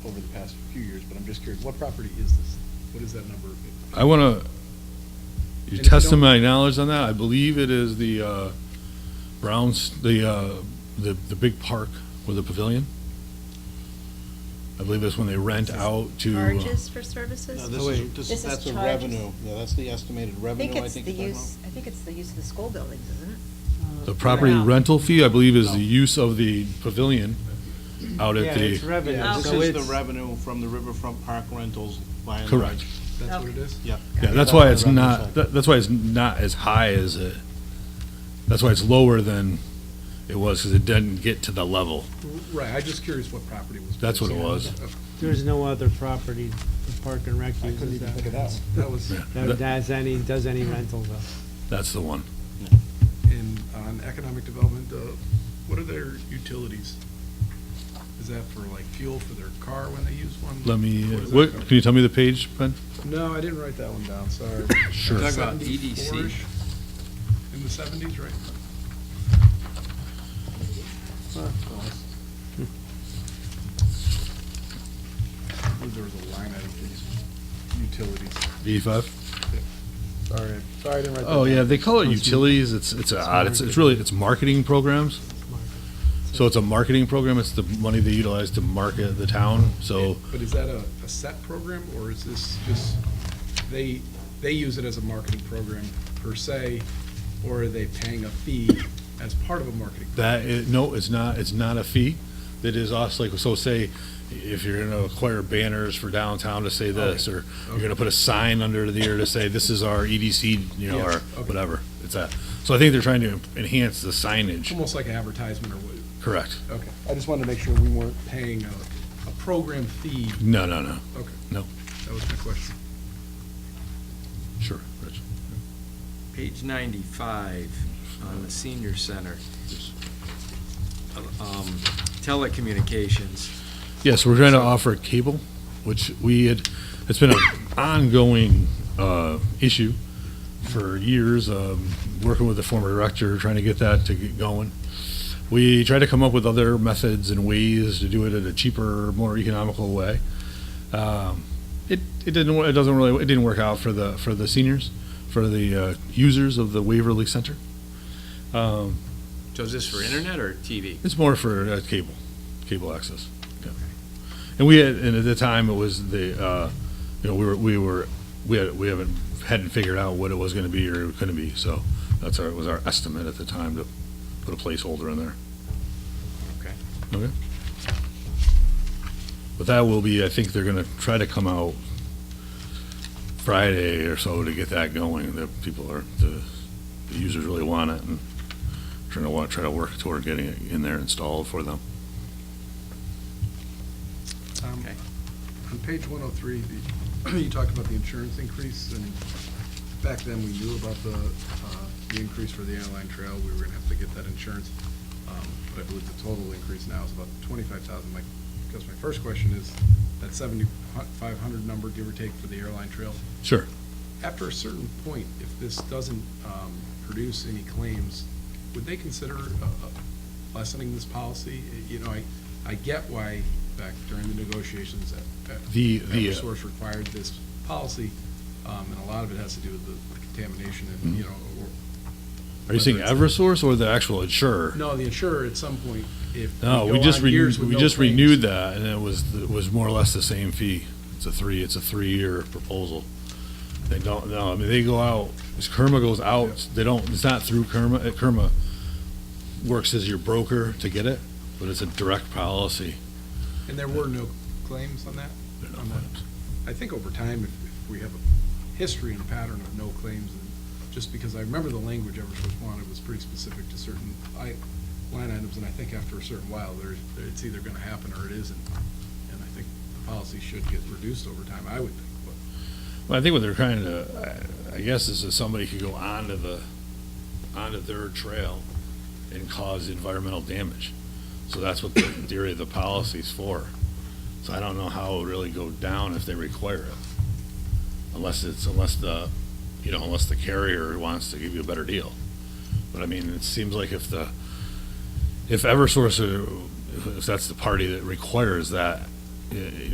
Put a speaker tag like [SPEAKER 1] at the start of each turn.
[SPEAKER 1] over the past few years, but I'm just curious, what property is this? What is that number?
[SPEAKER 2] I want to, you're
[SPEAKER 1] And if you
[SPEAKER 2] testing
[SPEAKER 1] don't-
[SPEAKER 2] my knowledge on that. I believe it is the uh, Browns, the, uh, the, the big park with the pavilion. I believe that's when they rent out to. uh,
[SPEAKER 3] Charges for services?
[SPEAKER 1] this is,
[SPEAKER 3] This is that's a charges. revenue.
[SPEAKER 1] yeah, that's the estimated
[SPEAKER 4] I think it's the use, I think it's the use of the school buildings, isn't it?
[SPEAKER 2] The property rental fee, I believe, is the use of the pavilion out
[SPEAKER 5] Yeah,
[SPEAKER 2] at
[SPEAKER 5] it's
[SPEAKER 2] the,
[SPEAKER 5] revenue,
[SPEAKER 3] Yeah,
[SPEAKER 5] so
[SPEAKER 3] this
[SPEAKER 5] it's.
[SPEAKER 6] revenue from the riverfront park rentals by and
[SPEAKER 2] correct.
[SPEAKER 1] That's what it is?
[SPEAKER 6] Yeah.
[SPEAKER 2] Yeah, that's why it's not, that- that's why it's not as high as it, that's why it's lower than it was, because it didn't get to the level.
[SPEAKER 1] Right, I'm just curious what property was.
[SPEAKER 2] That's what it was.
[SPEAKER 5] There's no other property the Park and Rec
[SPEAKER 1] I couldn't
[SPEAKER 5] uses
[SPEAKER 1] even think
[SPEAKER 5] that
[SPEAKER 1] of that. one. That was
[SPEAKER 2] Yeah,
[SPEAKER 5] that
[SPEAKER 2] that-
[SPEAKER 5] does any, does any rental though.
[SPEAKER 2] That's the one.
[SPEAKER 1] in, on economic development, uh, what are their utilities? Is that for like fuel for their car when they use one?
[SPEAKER 2] Let me,
[SPEAKER 1] What is
[SPEAKER 2] what,
[SPEAKER 1] that?
[SPEAKER 2] can you tell me the page, Ben?
[SPEAKER 1] No, I didn't write that one down, sorry.
[SPEAKER 2] Sure.
[SPEAKER 6] Talk about
[SPEAKER 1] 74-ish?
[SPEAKER 6] EDC.
[SPEAKER 1] In the seventies, right? I believe there was a line item for these utilities.
[SPEAKER 2] V5?
[SPEAKER 1] Sorry, sorry, I didn't write that.
[SPEAKER 2] Oh, yeah,
[SPEAKER 1] down.
[SPEAKER 2] they call it
[SPEAKER 5] That's-
[SPEAKER 2] utilities, it's, it's odd, it's, it's really, it's marketing programs. So it's a marketing program, it's the money they utilize to market the town, so
[SPEAKER 1] But is that a, a set program, or is this just, they, they use it as a marketing program per se, or are they paying a fee as part of a marketing?
[SPEAKER 2] That, is- no, it's not, it's not a fee. That is also like, so say, if you're gonna acquire banners for downtown to say this, or you're gonna put a sign under the ear to say, this is our EDC, you know,
[SPEAKER 1] Yeah,
[SPEAKER 2] or
[SPEAKER 1] okay.
[SPEAKER 2] whatever. It's a, so I think they're trying to enhance the
[SPEAKER 1] It's
[SPEAKER 2] signage,
[SPEAKER 1] almost like an advertisement or what?
[SPEAKER 2] correct?
[SPEAKER 1] Okay, I just wanted to make sure we weren't paying a, a program fee.
[SPEAKER 2] No, no, no,
[SPEAKER 1] Okay.
[SPEAKER 2] No.
[SPEAKER 1] That was my question.
[SPEAKER 2] sure, Rich.
[SPEAKER 6] Page ninety-five on the senior center. Um, Telecommunications,
[SPEAKER 2] Yes, we're trying to offer cable, which we had, it's been an ongoing uh, issue for years, um, working with the former director, trying to get that to get going. We tried to come up with other methods and ways to do it in a cheaper, more economical way. Um, It, it didn't, wo- it doesn't really, it didn't work out for the, for the seniors, for the uh, users of the Waverly Center. Um,
[SPEAKER 6] so is this for internet or TV?
[SPEAKER 2] it's more for uh, cable, cable access. Yeah. And we had, and at the time, it was the, uh, you know, we were, we were, we had, we haven't, hadn't figured out what it was gonna be or it couldn't be, so that's our, was our estimate at the time to put a placeholder in there.
[SPEAKER 6] Okay.
[SPEAKER 2] Okay. But that will be, I think they're gonna try to come out Friday or so to get that going, that people are, the, the users really want it and trying to want, try to work toward getting it in there installed for them.
[SPEAKER 1] Um,
[SPEAKER 6] Okay.
[SPEAKER 1] On page one oh three, you talked about the insurance increase, and back then we knew about the, uh, the increase for the airline trail, we were gonna have to get that insurance. Um, But I believe the total increase now is about twenty-five thousand, my, because my first question is, that seventy-five hundred number, give or take, for the airline trail,
[SPEAKER 2] Sure.
[SPEAKER 1] after a certain point, if this doesn't um, produce any claims, would they consider uh, uh, lessening this policy? You know, I, I get why back during the negotiations that
[SPEAKER 2] The-
[SPEAKER 1] that
[SPEAKER 2] the, uh,
[SPEAKER 1] Eversource required this policy, um, and a lot of it has to do with the contamination and, you know, or,
[SPEAKER 2] Mm-hmm. Are you saying Eversource or the actual insurer?
[SPEAKER 1] no, the insurer at some point, if we
[SPEAKER 2] No, we
[SPEAKER 1] go
[SPEAKER 2] just,
[SPEAKER 1] on
[SPEAKER 2] re-
[SPEAKER 1] years with
[SPEAKER 2] we
[SPEAKER 1] no
[SPEAKER 2] just
[SPEAKER 1] claims-
[SPEAKER 2] renewed that and it was, it was more or less the same fee. It's a three, it's a three-year proposal. They don't, no, I mean, they go out, as Kerma goes out, they don't, it's not through Kerma, uh, Kerma works as your broker to get it, but it's a direct policy.
[SPEAKER 1] And there were no claims on that?
[SPEAKER 2] They're not
[SPEAKER 1] On that.
[SPEAKER 2] claims.
[SPEAKER 1] I think over time, if, if we have a history and a pattern of no claims, and just because I remember the language Eversource wanted was pretty specific to certain i- line items, and I think after a certain while, there's, it's either gonna happen or it isn't. And I think the policy should get reduced over time, I would think, but
[SPEAKER 2] Well, I think what they're trying to, I- I guess, is that somebody could go onto the, onto their trail and cause environmental damage. So that's what the theory of the policy's for. So I don't know how it would really go down if they require it. Unless it's, unless the, you know, unless the carrier wants to give you a better deal. But I mean, it seems like if the, if Eversource, uh, if that's the party that requires that, eh,